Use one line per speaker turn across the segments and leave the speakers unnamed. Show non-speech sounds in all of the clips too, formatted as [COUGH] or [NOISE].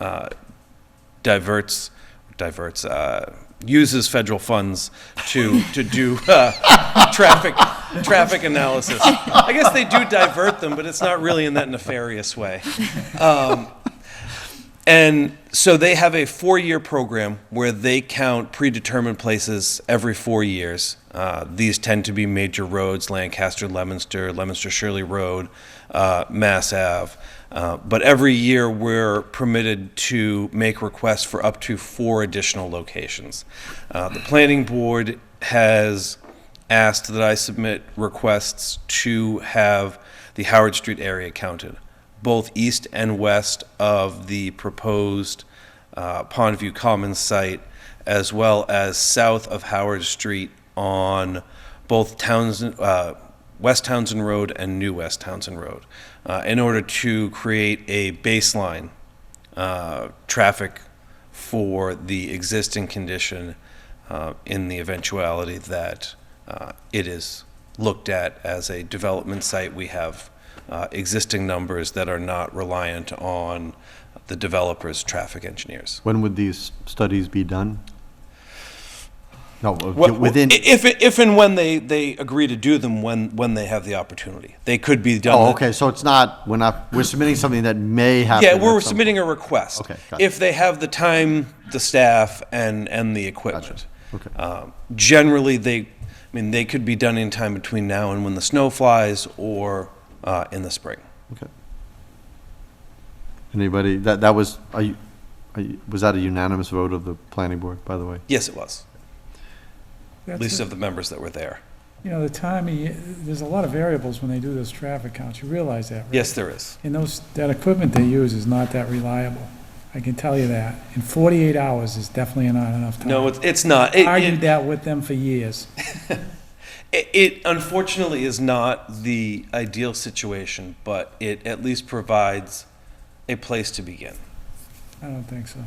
uh, diverts, diverts, uh, uses federal funds to, to do uh, traffic, traffic analysis. I guess they do divert them, but it's not really in that nefarious way. And so they have a four year program where they count predetermined places every four years. Uh, these tend to be major roads Lancaster, Leominster, Leominster Shirley Road, uh, Mass Ave. Uh, but every year we're permitted to make requests for up to four additional locations. Uh, the Planning Board has asked that I submit requests to have the Howard Street area counted, both east and west of the proposed uh, Pondview Commons site, as well as south of Howard Street on both Townsend, uh, West Townsend Road and New West Townsend Road, uh, in order to create a baseline uh, traffic for the existing condition uh, in the eventuality that uh, it is looked at as a development site. We have uh, existing numbers that are not reliant on the developer's traffic engineers.
When would these studies be done? No, uh,
Well,
within,
i- If, if and when they, they agree to do them, when, when they have the opportunity. They could be done.
oh, okay, so it's not, we're not, we're submitting something that may happen.
Yeah,
at
we're
some-
submitting a request.
Okay, got it.
If they have the time, the staff, and, and the equipment.
okay.
Um, Generally, they, I mean, they could be done in time between now and when the snow flies, or uh, in the spring.
Okay. Anybody, that, that was, are you, are you- was that a unanimous vote of the planning board, by the way?
Yes, it was, at
That's
least
it.
of the members that were there.
You know, the time, of ye- there's a lot of variables when they do those traffic counts, you realize that, right?
Yes, there is.
And those, that equipment they use is not that reliable, I can tell you that. And 48 hours is definitely not enough time.
No, it's, it's not. It-
Argued
It,
that with them for years.
it- it unfortunately is not the ideal situation, but it at least provides a place to begin.
I don't think so.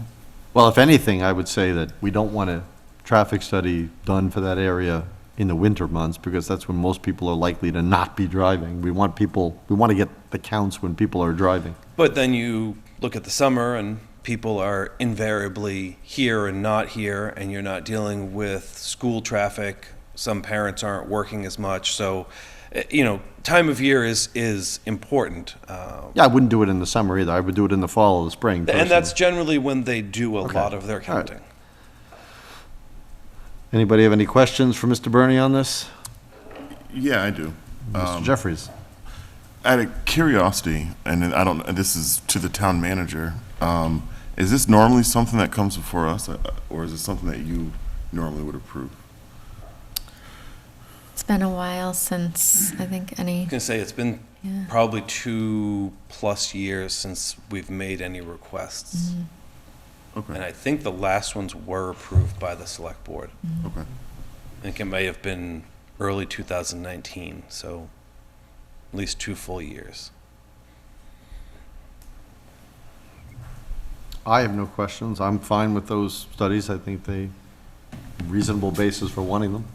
Well, if anything, I would say that we don't want a traffic study done for that area in the winter months, because that's when most people are likely to not be driving. We want people, we want to get the counts when people are driving.
But then you look at the summer and people are invariably here and not here, and you're not dealing with school traffic. Some parents aren't working as much, so eh, you know time of year is is important, uh,
Yeah, I wouldn't do it in the summer either. I would do it in the fall or the spring.
and
personally.
that's generally when they do a lot of their
All right.
counting.
Anybody have any questions for Mr. Bernie on this?
Yeah, I do.
Mr. Jeffries?
Out of curiosity, and I don't, and this is to the town manager, um, is this normally something that comes before us, uh, or is it something that you normally would approve?
It's been a while since I think
I
any.
was gonna say it's been
Yeah.
probably two plus years since we've made any requests, and
Okay,
I think the last ones were approved by the select board.
okay.
I think it may have been early 2019, so at least two full years.
I have no questions. I'm fine with those studies. I think they, reasonable basis for wanting them.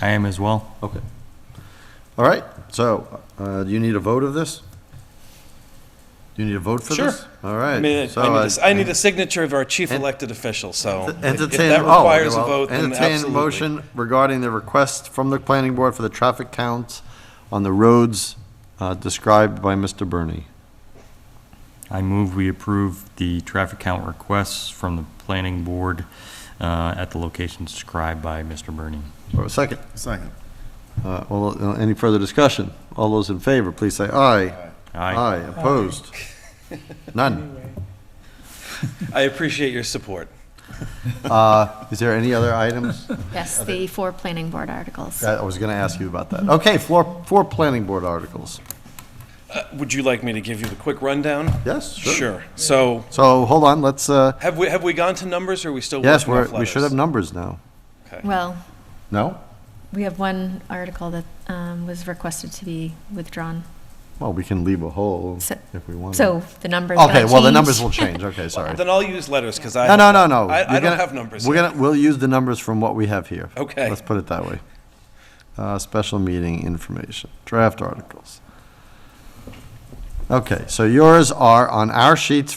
I am as well.
Okay. All right, so, uh, do you need a vote of this? Do you need a vote for
Sure.
this? All
I
right.
mean, I need
so uh,
a s- I need a signature of our chief elected official, so if- if
Entertain-
that
oh,
requires a
well,
vote, then
Entertain a
absolutely.
motion regarding the request from the planning board for the traffic counts on the roads uh, described by Mr. Bernie.
I move we approve the traffic count requests from the planning board uh, at the locations described by Mr. Bernie.
Or a second?
Second.
Uh, all- uh, Any further discussion? All those in favor, please say aye.
Aye.
opposed? None.
Anyway,
I appreciate your support.
Uh, Is there any other items?
Yes, the four planning board articles.
I was going to ask you about that. Okay, four, four planning board articles.
Uh, Would you like me to give you the quick rundown?
Yes, sure.
Sure. So
So, hold on, let's, uh,
have we, have we gone to numbers or are we still
yes,
working
we're,
off
we should have
letters?
numbers now.
Okay.
Well,
No?
we have one article that um, was requested to be withdrawn.
Well, we can leave a hole
So-
if we want.
So the numbers. that
Oh, Okay, well, the
changed-
numbers will change,
[LAUGHS]
okay, sorry.
Then I'll use letters because I.
No, no, no, no.
I, I
You're
don't
gonna-
have numbers.
We're
yet.
gonna, we'll use the numbers from what we have here.
Okay.
Let's put it that way. Uh, special meeting information, draft articles. Uh, Okay, so yours are on our sheets